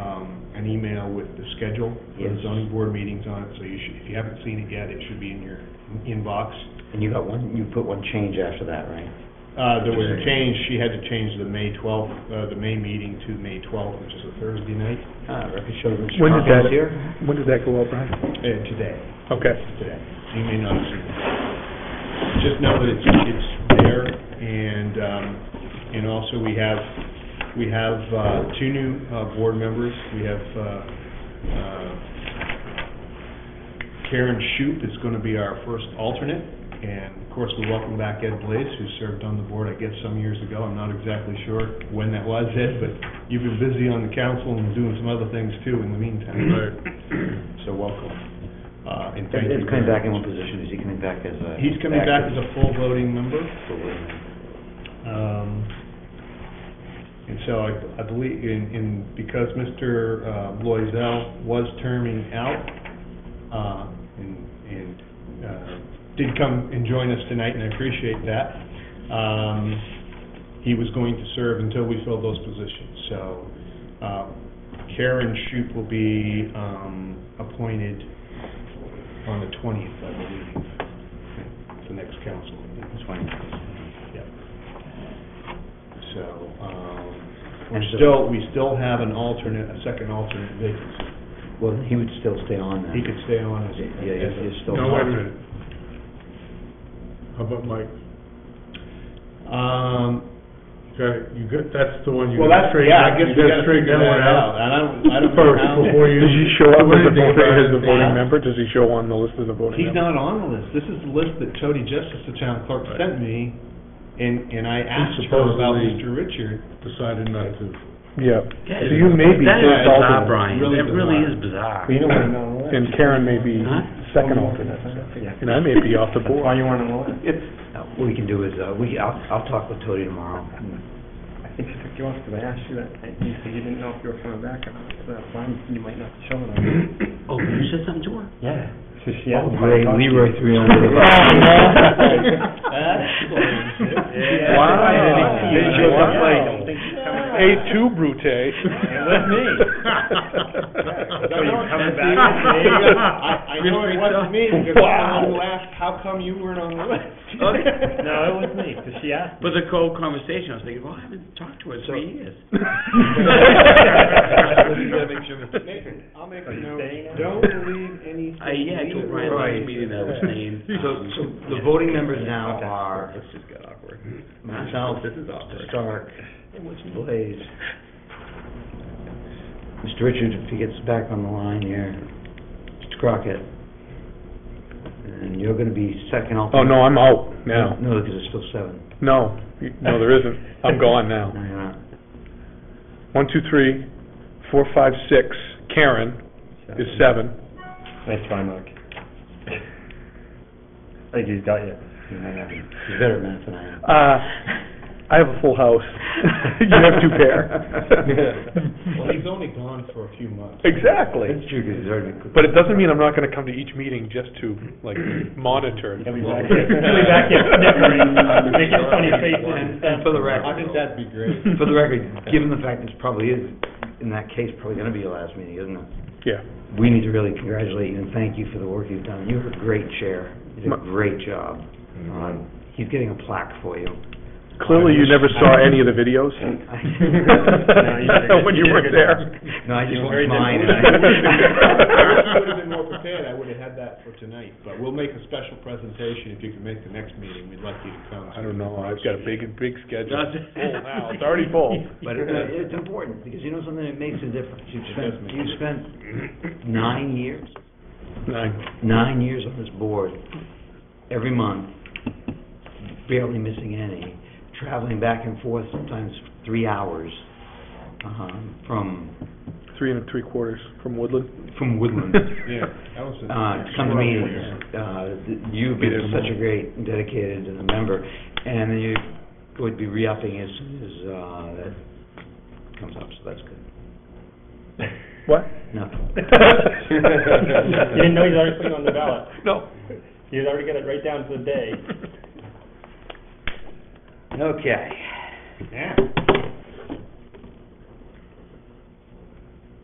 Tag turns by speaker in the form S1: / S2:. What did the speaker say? S1: um, an email with the schedule for the
S2: Yes.
S1: zoning board meetings on it, so you should, if you haven't seen it yet, it should be in your inbox.
S2: And you got one, you put one change after that, right?
S1: Uh, there was a change, she had to change the May twelfth, uh, the May meeting to May twelfth, which is a Thursday night,
S2: Ah, record shows Mr.
S3: When did
S2: Crockett's
S3: that-
S2: here.
S3: When did that go up, Brian?
S1: uh, today.
S3: Okay.
S1: today. You may not have seen it. Just know that it's, it's there, and, um, and also we have, we have, uh, two new, uh, board members. We have, uh, uh, Karen Shoup is gonna be our first alternate, and of course, we welcome back Ed Blades, who served on the board, I guess, some years ago. I'm not exactly sure when that was, Ed, but you've been busy on the council and doing some other things too in the meantime. So welcome, uh, and thank you.
S2: It's coming
S1: very
S2: back in
S1: much.
S2: what position? Is he coming back as a?
S1: He's coming back as a full voting member, um, and so I, I believe, in, in, because Mr. uh, Loisel was terming out, uh, and, and, uh, did come and join us tonight, and I appreciate that, um, he was going to serve until we fill those positions, so, uh, Karen Shoup will be, um, appointed on the twentieth, I believe, at the next council meeting. Yep. So, um, we're
S2: And so-
S1: still, we still have an alternate, a second alternate vacancy.
S2: Well, he would still stay on then.
S1: He could stay on as.
S2: Yeah,
S1: as
S2: you're-
S1: a-
S2: you're still.
S4: Now, wait a minute. How about Mike?
S1: Um,
S4: You got, you got, that's the one you
S1: well,
S4: got
S1: that's,
S4: straighten
S1: yeah, I
S4: out.
S1: guess
S4: You
S1: we
S4: gotta
S1: gotta
S4: straighten that
S1: figure that
S4: one
S1: out. And I don't, I don't know
S4: First,
S1: how.
S4: before you.
S3: Does he show up
S4: do
S3: as a
S4: anything
S3: voting,
S4: about
S3: as a
S4: it.
S3: voting member? Does he show on the list as a voting
S1: He's
S3: member?
S1: not on the list. This is the list that Jody Justice, the town clerk,
S4: Right.
S1: sent me, and, and I asked her about
S4: supposedly-
S1: Mr. Richard.
S4: Decided not to.
S3: Yeah. So you may be
S5: That is
S3: first
S5: bizarre,
S3: alternate,
S5: Brian.
S1: Really
S5: That really
S1: bizarre.
S5: is bizarre.
S2: You know what I
S3: and Karen may be
S5: Huh?
S3: second
S6: Oh,
S3: alternate, and I may be off the board.
S2: you want to know What we can do is, uh, we, I'll, I'll talk with Tony tomorrow.
S6: I think she took you off because I asked you that, and you said you didn't know if you were coming back or not, so that's why you might not show it.
S5: Oh, you said something to her?
S2: Yeah.
S6: So she
S2: Oh, great, Leroy three oh one.
S1: Yeah.
S3: Wow.
S1: They showed up late.
S3: Wow. A two brute.
S1: was
S3: It
S1: me.
S3: me.
S1: coming
S4: back?
S1: I, I know it wasn't me, because I'm the one who
S3: Wow.
S1: asked, how come you weren't on the list?
S5: Okay.
S6: No, it was me, because she asked.
S5: But the cold conversation, I was thinking, well, I haven't talked to her in three years.
S1: Nathan, I'll make a note,
S6: staying on?
S1: don't believe anything.
S5: I, yeah, I told Brian last meeting that I was staying.
S2: So,
S5: um,
S2: so the
S5: yeah.
S2: voting members now are. This just got awkward. Myself,
S5: This is awkward.
S2: Mr. Stark, Mr. Blaze. Mr. Richard, if he gets back on the line here, Mr. Crockett. And you're gonna be second
S3: Oh,
S2: alternate.
S3: no, I'm out now.
S2: No, because it's still seven.
S3: No, you- no, there isn't. I'm gone now.
S2: No, you're not.
S3: One, two, three, four, five, six. Karen is seven.
S6: Nice try, Mark. I think he's got you.
S2: You're not. He's better at math than I am.
S3: Uh, I have a full house. You have two
S1: Well,
S3: pair.
S1: he's only gone for a few mons.
S3: Exactly.
S2: That's true, because he's already.
S3: But it doesn't mean I'm not gonna come to each meeting just to, like, monitor.
S6: He'll be back here, he'll be back here snickering, making funny faces and
S2: And
S6: stuff.
S2: and for the
S1: I
S2: record,
S1: think that'd be great.
S2: For the record, given the fact this probably is, in that case, probably gonna be your last meeting, isn't it?
S3: Yeah.
S2: We need to really congratulate you and thank you for the work you've done. You're a great chair. You did a
S3: My-
S2: great job. Um, He's getting a plaque for you.
S3: Clearly, you never saw any of the videos. When you were there.
S2: No, I just
S1: He's
S2: watched
S1: very
S2: mine. and
S1: disappointed. I
S2: I-
S1: would have been more prepared, I would have had that for tonight, but we'll make a special presentation if you can make the next meeting, we'd like you to come.
S3: I don't know, I've got a big, big schedule.
S5: Does it?
S3: Full now, it's already full.
S2: But uh, it- it's important, because you know something, it makes a difference. You've
S1: It does
S2: spent,
S1: make a
S2: you've spent nine years,
S3: Nine.
S2: nine years on this board, every month, barely missing any, traveling back and forth, sometimes three hours, um, from,
S3: Three and three quarters from Woodland.
S2: from Woodland.
S1: Yeah, that was. a-
S2: uh, to come to meetings. Uh, th- You've
S3: Be
S2: been
S3: there
S2: such a
S3: more.
S2: great and dedicated uh, member, and you would be re-upping as soon as uh, that comes up, so that's good.
S3: What?
S2: Nothing.
S6: You didn't know he's already putting on the ballot.
S3: No.
S6: He's already got it right down to the day.
S2: Okay.
S1: Yeah.